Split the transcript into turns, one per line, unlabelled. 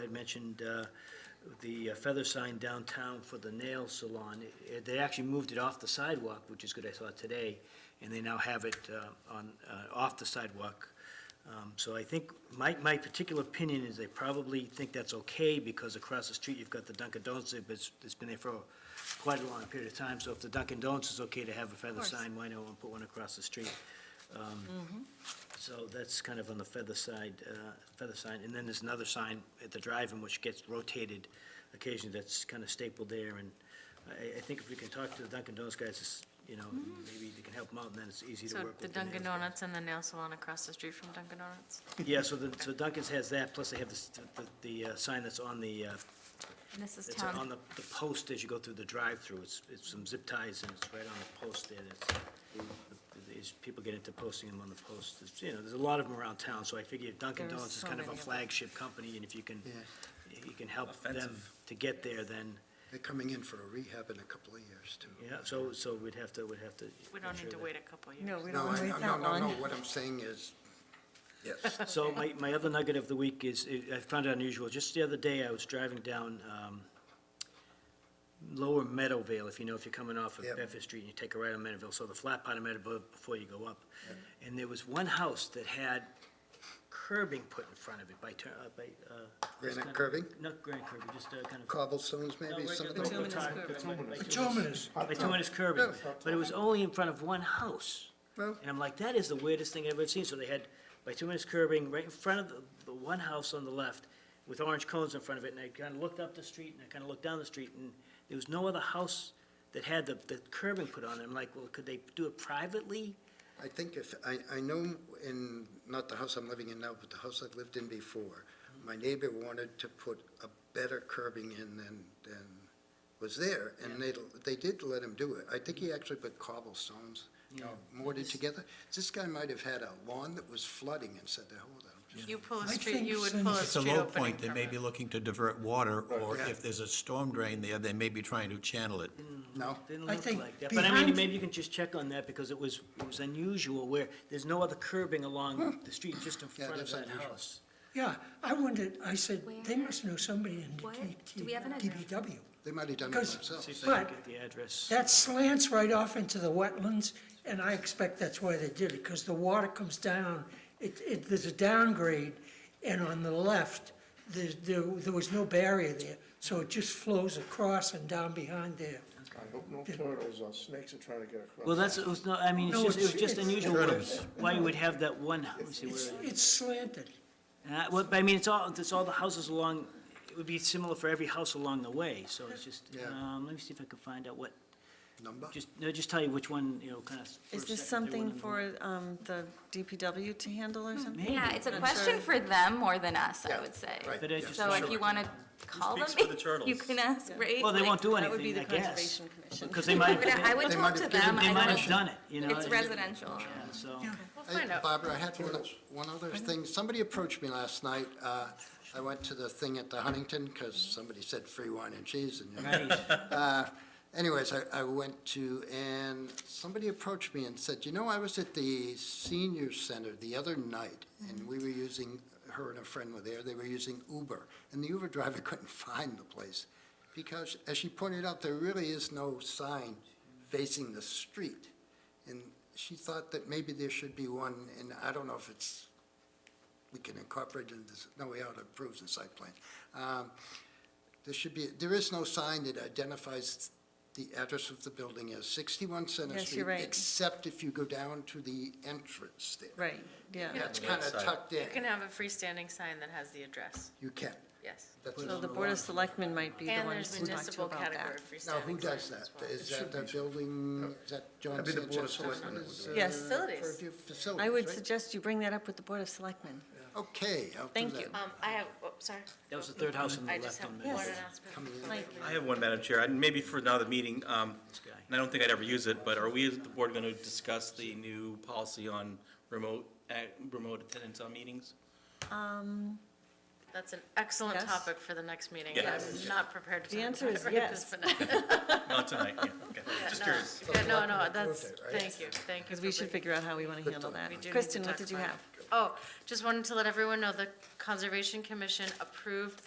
had mentioned uh, the uh, feather sign downtown for the nail salon. It- They actually moved it off the sidewalk, which is good, I saw it today, and they now have it uh, on, uh, off the sidewalk. Um, So I think, my, my particular opinion is they probably think that's okay, because across the street, you've got the Dunkin' Donuts, but it's, it's been there for quite a long period of time, so if the Dunkin' Donuts is okay to have a feather
course.
sign, why not put one across the street? Um, So that's kind of on the feather side, uh, feather sign, and then there's another sign at the drive-in which gets rotated occasionally, that's kind of stapled there, and I, I think if we can talk to the Dunkin' Donuts guys, it's, you know, maybe they can help them out, and then it's easy to
Mm-hmm. So
work with.
the
nails
Dunkin'
guys.
Donuts and the nail salon across the street from Dunkin' Donuts?
Yeah, so the, so Dunkin's has that, plus they have this- the, the uh, sign that's on the, uh,
And this is
it's on
town,
the, the post as you go through the drive-through. It's, it's some zip ties and it's right on the post there. It's, it's, people get into posting them on the post. It's, you know, there's a lot of them around town, so I figure Dunkin'
There's
Donuts is
so
kind of a
many of them.
flagship company and if you can, you can help them
Offensive.
to get there, then,
They're coming in for a rehab in a couple of years, too.
yeah, so, so we'd have to, we'd have to.
we don't
ensure
need to
that-
wait a couple years.
No, we don't
No,
want
I-
to wait
no,
that
no, no,
long.
what I'm saying is, yes,
So my, my other nugget of the week is, I found it unusual, just the other day, I was driving down, um, Lower Meadowvale, if you know, if you're coming off of
Yep.
Bedford Street and you take a right on Meadowvale, so the flat part of Meadowvale before you go up. And there was one house that had curbing put in front of it by, turn- uh, by, uh.
Granite
kind of-
curbing?
Not granite curbing, just, uh, kind of.
cobblestones
No,
maybe,
right,
some
uh,
of
no,
them.
no, tar- curbing, by bituminous. By
Bituminous.
bituminous curbing,
Yeah.
but it was only in front of one house.
Well-
And I'm like, that is the weirdest thing I've ever seen. So they had bituminous curbing right in front of the, the one house on the left with orange cones in front of it, and I kind of looked up the street, and I kind of looked down the street, and there was no other house that had the, the curbing put on it. I'm like, well, could they do it privately?
I think if, I, I know in, not the house I'm living in now, but the house I lived in before, my neighbor wanted to put a better curbing in than, than was there, and they, they did let him do it. I think he actually put cobblestones, you know, mortared together. This guy might have had a lawn that was flooding and said, the hell with it, I'm just
You pull a
I
street,
think
you would
since
pull a
It's a
street
low
opening
point, they may
permit.
be looking to divert water, or
Yeah.
if there's a storm drain there, they may be trying to channel it.
No,
Didn't
I
look
think
like that. But I mean,
behind-
maybe you can just check on that, because it was, it was unusual where there's no other curbing along the street, just in
Yeah,
front of
that's
that
unusual.
house.
Yeah, I wondered, I said,
they
must know somebody in
What? Do we have an address?
DBW.
they might have done it
Because-
themselves.
See if
They-
they can get
But-
the address.
That slants right off into the wetlands, and I expect that's why they did it, because the water comes down, it, it, there's a downgrade, and on the left, there, there, there was no barrier there, so it just flows across and down behind there.
I hope no turtles or snakes are trying to get across.
Well, that's, it was not, I mean, it's
No,
just, it was
it's-
just
it's-
unusual where-
Turtles.
why you would have that one, let me see
It's,
where.
it's slanted.
And I- Well, but I mean, it's all, it's all the houses along, it would be similar for every house along the way, so it's just,
Yeah.
um, let me see if I can find out what,
Number?
just, no, just tell you which one, you know, kind of.
Is this something for um, the DPW to handle
Hmm.
or something?
Maybe,
Yeah, it's a
I'm
question
sure.
for them more than us, I would say.
right,
but I just.
So if you want to call them,
speaks for the turtles?
you can ask, right?
Well, they
Like,
won't do
That would be
anything,
the
I guess,
Conservation Commission.
because they might,
I would- I
they
would
They
talk
might
to
have given-
them. I
might
don't-
have done it, you know.
It's
and-
residential.
yeah, So,
We'll
Hey,
find out.
Barbara, I had one, one other thing. Somebody approached me last night. Uh, I went to the thing at the Huntington because somebody said free wine and cheese and, you know.
right,
Uh, Anyways, I, I went to, and somebody approached me and said, you know, I was at the senior center the other night, and we were using, her and a friend were there, they were using Uber, and the Uber driver couldn't find the place, because, as she pointed out, there really is no sign facing the street. And she thought that maybe there should be one, and I don't know if it's, we can incorporate it in this, no, we ought to approve the site plan. Um, there should be, there is no sign that identifies the address of the building as 61 Center Street.
Yes, you're right.
Except if you go down to the entrance there.
Right, yeah.
That's kind of tucked in.
You can have a freestanding sign that has the address,
You can.
yes.
That's
So the Board of Selectmen might be the
And there's
ones to talk to
municipal
about
category
that.
freestanding signs.
Now, who does
as
that?
well.
Is that the building, is that John
That'd be the Board of
Sanchez?
Selectmen that would
Is,
do
uh,
it. Yes. Facilities.
purview- Facilities,
I would
right?
suggest you bring that up with the Board of Selectmen.
Okay, I'll do
Thank
that.
you.
Um, I have, oh, sorry,
that was the third house on the
I
left
just have
on
one
Main.
announcement.
I have one, Madam Chair, and maybe for now the meeting, um, and I don't think I'd ever use it, but are we as the board going to discuss the new policy on remote, ac- remote attendance on meetings?
That's an excellent
Yes.
topic for the next meeting.
Yes.
I'm not prepared to.
The
talk
answer
about
is
it right
yes.
this minute.
Not tonight, yeah, okay, just
No.
curious.
Yeah, no, no,
Selectmen
that's,
approved it, right?
thank you, thank you.
Because we
for
should
bringing-
figure out how we want to handle that.
we do need to
Kristen, what
talk
did you
about
have?
it. Oh, just wanted to let everyone know the Conservation Commission approved